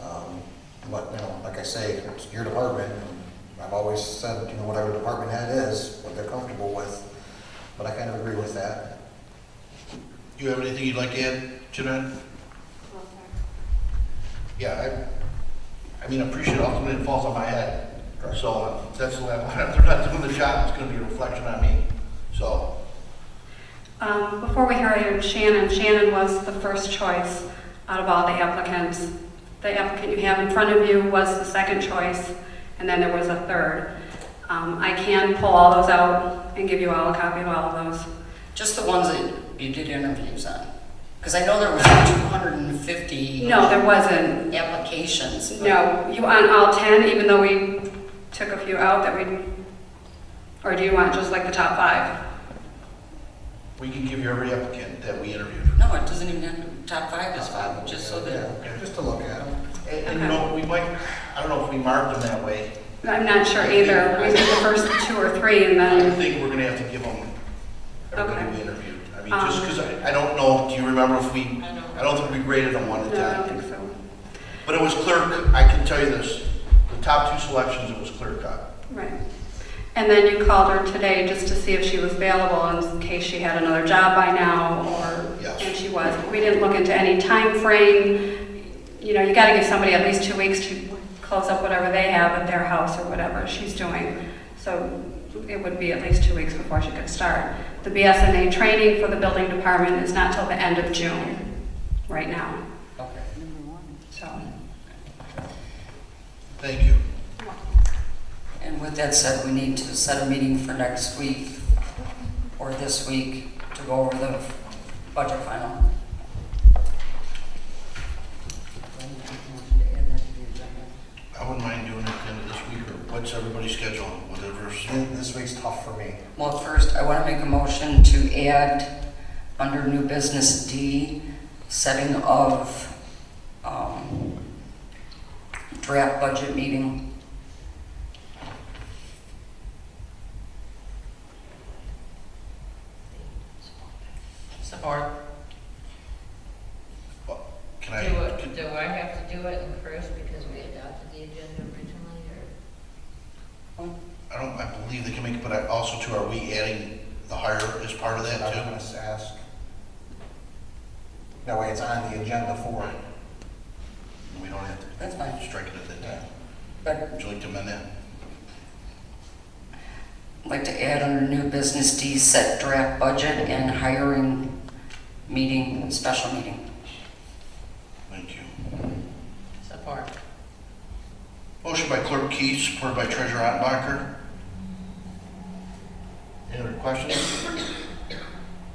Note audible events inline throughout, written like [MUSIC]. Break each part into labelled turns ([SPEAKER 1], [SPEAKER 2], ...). [SPEAKER 1] Um, say, it's your department, and I've always said, you know, whatever department head is, what they're comfortable with, but I kind of agree with that.
[SPEAKER 2] You have anything you'd like to add to that? Yeah, I, I mean, I'm pretty sure ultimately it falls on my head. So that's the level, if [LAUGHS] they're not doing the job, it's gonna be a reflection on me. So,
[SPEAKER 3] Um, Before we hired Shannon, Shannon was the first choice out of all the applicants. The applicant you have in front of you was the second choice, and then there was a third. Um, I can pull all those out and give you all a copy of all of those.
[SPEAKER 4] Just the ones that you did interviews on? Because I know there was 250
[SPEAKER 3] No, there wasn't.
[SPEAKER 4] applications. but-
[SPEAKER 3] No, you want all 10, even though we took a few out that we, or do you want just like the top five?
[SPEAKER 2] we can give you every applicant that we interviewed.
[SPEAKER 4] No, it doesn't even have to, top five is fine, just so that,
[SPEAKER 1] Yeah, Just to look at them.
[SPEAKER 2] And, and you know, we might, I don't know if we marked them that way.
[SPEAKER 3] I'm not sure either. We did the first two or three and
[SPEAKER 2] I
[SPEAKER 3] then,
[SPEAKER 2] think we're gonna have to give them everybody we interviewed. I mean, just
[SPEAKER 3] Um.
[SPEAKER 2] because I, I don't know, do you remember if we,
[SPEAKER 4] I don't.
[SPEAKER 2] I don't think we graded them one at
[SPEAKER 3] no, I don't
[SPEAKER 2] that.
[SPEAKER 3] think so.
[SPEAKER 2] But it was clear, I can tell you this, the top two selections, it was clear cut.
[SPEAKER 3] Right. And then you called her today just to see if she was available in case she had another job by now or,
[SPEAKER 2] Yes.
[SPEAKER 3] and she was. We didn't look into any time frame. You know, you gotta give somebody at least two weeks to close up whatever they have at their house or whatever she's doing. So it would be at least two weeks before she could start. The BSNA training for the building department is not till the end of June, right now,
[SPEAKER 1] Okay.
[SPEAKER 3] so.
[SPEAKER 2] Thank you.
[SPEAKER 4] and with that said, we need to set a meeting for next week or this week to go over the budget final.
[SPEAKER 2] I wouldn't mind doing it at the end of this week, or what's everybody's schedule, whatever's.
[SPEAKER 1] Th- This week's tough for me.
[SPEAKER 4] Well, first, I want to make a motion to add under new business D, setting of um, draft budget meeting.
[SPEAKER 5] Support.
[SPEAKER 2] Can
[SPEAKER 5] Do,
[SPEAKER 2] I,
[SPEAKER 5] it-
[SPEAKER 2] can-
[SPEAKER 5] do I have to do it in first because we adopted the agenda originally, or?
[SPEAKER 2] I don't, I believe they can make it, but I also too, are we adding the hire as part of
[SPEAKER 1] I
[SPEAKER 2] that
[SPEAKER 1] was
[SPEAKER 2] too?
[SPEAKER 1] gonna s- ask. That way it's on the agenda for it.
[SPEAKER 2] We don't have to.
[SPEAKER 4] That's fine.
[SPEAKER 2] Strike it at that time.
[SPEAKER 4] But
[SPEAKER 2] Would you like to amend that?
[SPEAKER 4] I'd like to add under new business D, set draft budget and hiring meeting, special meeting.
[SPEAKER 2] Thank you.
[SPEAKER 5] Support.
[SPEAKER 2] Motion by Clerk Keith, supported by Treasurer Ottenbacher. Any other questions?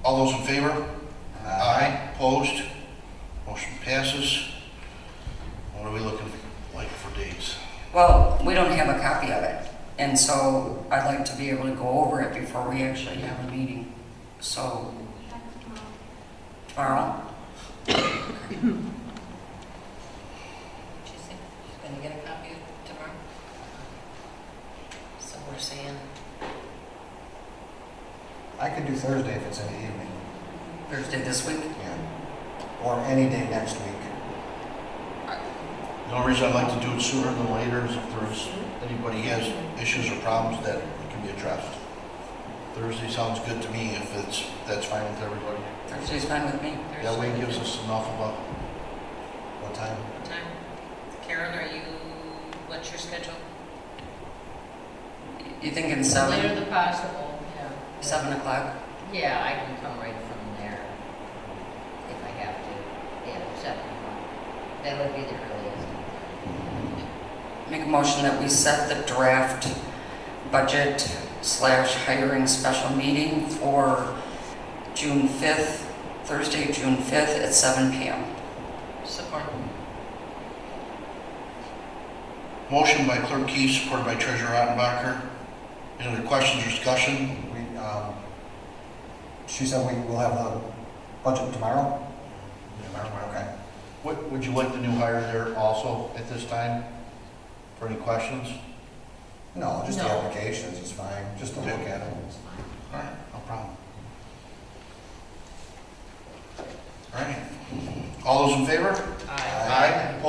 [SPEAKER 2] All those in favor? Aye. Opposed? Motion passes. What are we looking like for dates?
[SPEAKER 4] Well, we don't have a copy of it, and so I'd like to be able to go over it before we actually have a meeting. So tomorrow?
[SPEAKER 5] She said, gonna get a copy tomorrow? So we're saying.
[SPEAKER 1] I could do Thursday if it's in the evening,
[SPEAKER 4] Thursday this week?
[SPEAKER 1] yeah. Or any day next week.
[SPEAKER 2] The only reason I'd like to do it sooner than later is if there's, anybody has issues or problems that can be addressed. Thursday sounds good to me if it's, that's fine with everybody.
[SPEAKER 4] Thursday's fine with me.
[SPEAKER 2] That way it gives us enough of
[SPEAKER 1] What time?
[SPEAKER 5] Time. Karen, are you, what's your schedule?
[SPEAKER 4] You thinking
[SPEAKER 5] Later
[SPEAKER 4] seven,
[SPEAKER 5] than possible, yeah.
[SPEAKER 4] seven o'clock?
[SPEAKER 5] Yeah, I can come right from there if I have to. Yeah, seven o'clock. That would be the earliest.
[SPEAKER 4] Make a motion that we set the draft budget slash hiring special meeting for June fifth, Thursday, June fifth at seven PM.
[SPEAKER 5] Support.
[SPEAKER 2] a, motion by Clerk Keith, supported by Treasurer Ottenbacher. Any other questions or discussion?
[SPEAKER 1] We, um, she said we will have the budget tomorrow? Tomorrow, okay.
[SPEAKER 2] Would, would you like the new hire there also at this time? For any questions?
[SPEAKER 1] No, just the
[SPEAKER 5] No.
[SPEAKER 1] applications is fine, just to look at them.
[SPEAKER 2] All right, no problem. All right. All those in favor?
[SPEAKER 1] Aye.
[SPEAKER 2] Opposed?